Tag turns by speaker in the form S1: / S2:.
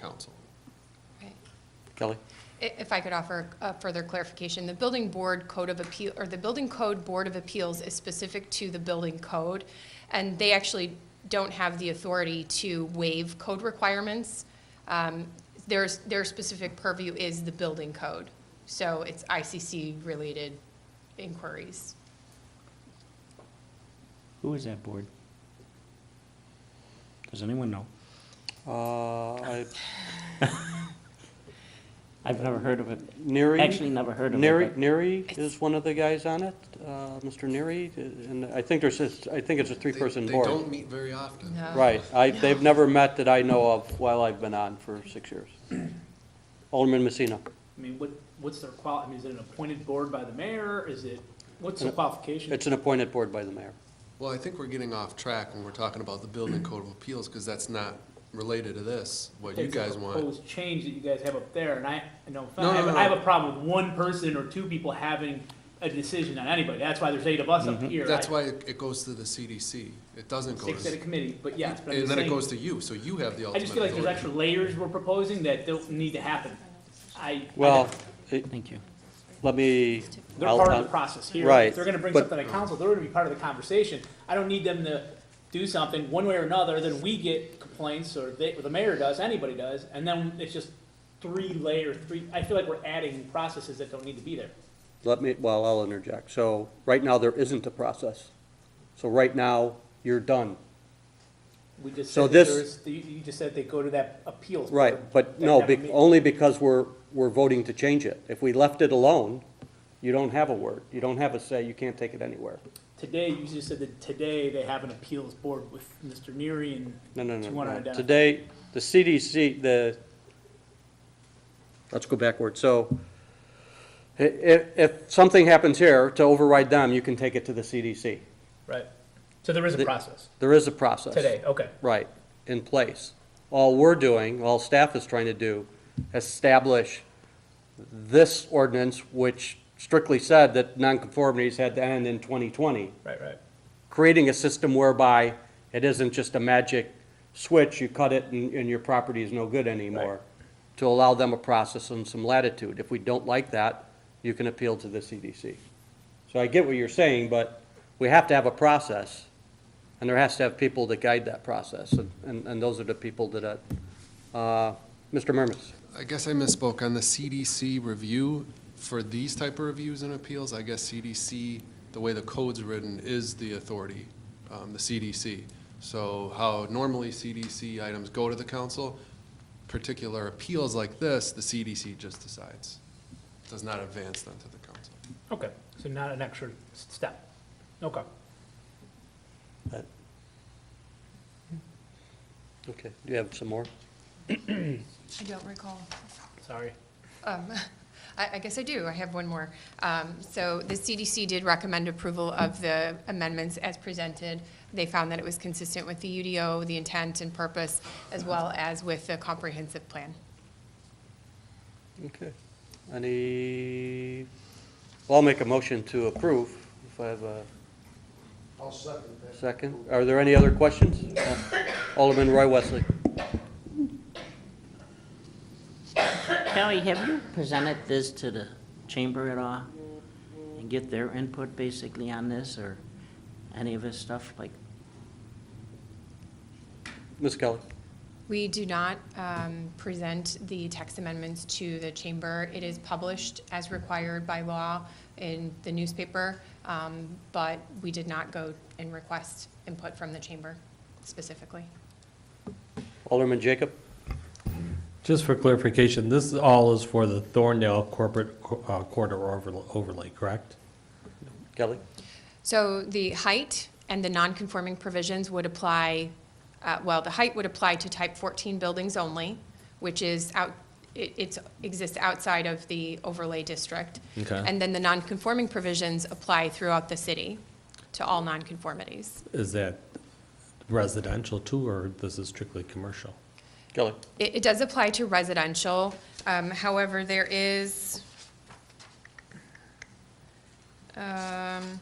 S1: council.
S2: Right.
S3: Kelly?
S2: I- If I could offer a further clarification, the Building Board Code of Appeal, or the Building Code Board of Appeals is specific to the building code, and they actually don't have the authority to waive code requirements. Um, There's, their specific purview is the building code, so it's ICC-related inquiries.
S4: Who is that board? Does anyone know?
S3: Uh, I,
S4: I've never heard of it.
S3: Neary?
S4: Actually, never heard of it.
S3: Neary,
S4: but-
S3: Neary is one of the guys on it, uh, Mr. Neary, and I think there's just, I think it's a three-person
S1: They-
S3: board.
S1: They don't meet very often.
S2: No.
S3: Right, I, they've never met that I know of while I've been on for six years. Alderman Messina.
S5: I mean, what, what's their qual, I mean, is it an appointed board by the mayor? Is it, what's the qualification?
S3: It's an appointed board by the mayor.
S1: Well, I think we're getting off track when we're talking about the Building Code of Appeals, because that's not related to this, what you
S5: It's a
S1: guys want.
S5: Proposed change that you guys have up there, and I, no, offense,
S1: No,
S5: I have,
S1: no, no.
S5: I have a problem with one person or two people having a decision on anybody. That's why there's eight of us up here.
S1: Mm-hmm. That's
S5: I-
S1: why it it goes to the CDC. It doesn't go
S5: Six at a
S1: to,
S5: committee, but yes, but I'm
S1: and
S5: just
S1: then it
S5: saying,
S1: goes to you, so you have the
S5: I
S1: ultimate
S5: just feel like there's
S1: authority.
S5: extra layers we're proposing that don't need to happen. I.
S3: Well, it-
S4: Thank you.
S3: let me.
S5: They're
S3: I'll-
S5: part of
S3: I'll-
S5: the process here.
S3: Right,
S5: If they're gonna bring
S3: but-
S5: something to council, they're gonna be part of the conversation. I don't need them to do something one way or another, then we get complaints, or they, or the mayor does, anybody does, and then it's just three layer, three, I feel like we're adding processes that don't need to be there.
S3: Let me, well, I'll interject. So, right now, there isn't a process. So right now, you're done.
S5: We just
S3: So
S5: said that
S3: this-
S5: there's, you, you just said they go to that appeals. board.
S3: Right, but
S5: That
S3: no,
S5: never
S3: bec-
S5: meet-
S3: only because we're, we're voting to change it. If we left it alone, you don't have a word. You don't have a say. You can't take it anywhere.
S5: Today, you just said that today they have an appeals board with Mr. Neary and.
S3: No, no,
S5: Do
S3: no,
S5: you wanna
S3: no.
S5: identify?
S3: Today, the CDC, the, let's go backward. So i- i- if something happens here to override them, you can take it to the CDC.
S5: Right, so there is
S3: The-
S5: a process,
S3: There is a process.
S5: today, okay.
S3: Right, in place. All we're doing, all staff is trying to do, establish this ordinance, which strictly said that nonconformities had to end in 2020
S5: Right, right.
S3: creating a system whereby it isn't just a magic switch, you cut it and, and your property is no good anymore, to allow them a process and some latitude. If we don't like that, you can appeal to the CDC. So I get what you're saying, but we have to have a process, and there has to have people that guide that process, and- and, and those are the people that, uh, uh, Mr. Murmas.
S1: I guess I misspoke. On the CDC review, for these type of reviews and appeals, I guess CDC, the way the code's written, is the authority, um, the CDC. So how normally CDC items go to the council, particular appeals like this, the CDC just decides. Does not advance them to the council.
S5: Okay, so not an extra s- step. Okay.
S3: Okay, do you have some more?
S2: I don't recall.
S5: Sorry.
S2: Um, I I guess I do, I have one more. Um, So the CDC did recommend approval of the amendments as presented. They found that it was consistent with the UDO, the intent and purpose, as well as with the comprehensive plan.
S3: Okay. Any, well, I'll make a motion to approve, if I have a
S6: I'll second that.
S3: Second. Are there any other questions? Alderman Roy Wesley.
S7: Kelly, have you presented this to the chamber at all? And get their input basically on this or any of this stuff like?
S3: Ms. Kelly.
S2: We do not um, present the text amendments to the chamber. It is published as required by law in the newspaper, um, but we did not go and request input from the chamber specifically.
S3: Alderman Jacob.
S8: Just for clarification, this all is for the Thorndale Corporate uh, Corridor overl- overlay, correct?
S3: Kelly.
S2: So the height and the non-conforming provisions would apply, uh, well, the height would apply to type 14 buildings only, which is out, it it's- exists outside of the overlay district.
S8: Okay.
S2: And then the non-conforming provisions apply throughout the city to all non-conformities.
S8: Is that residential too, or this is strictly commercial?
S3: Kelly.
S2: It it does apply to residential, um, however, there is, um,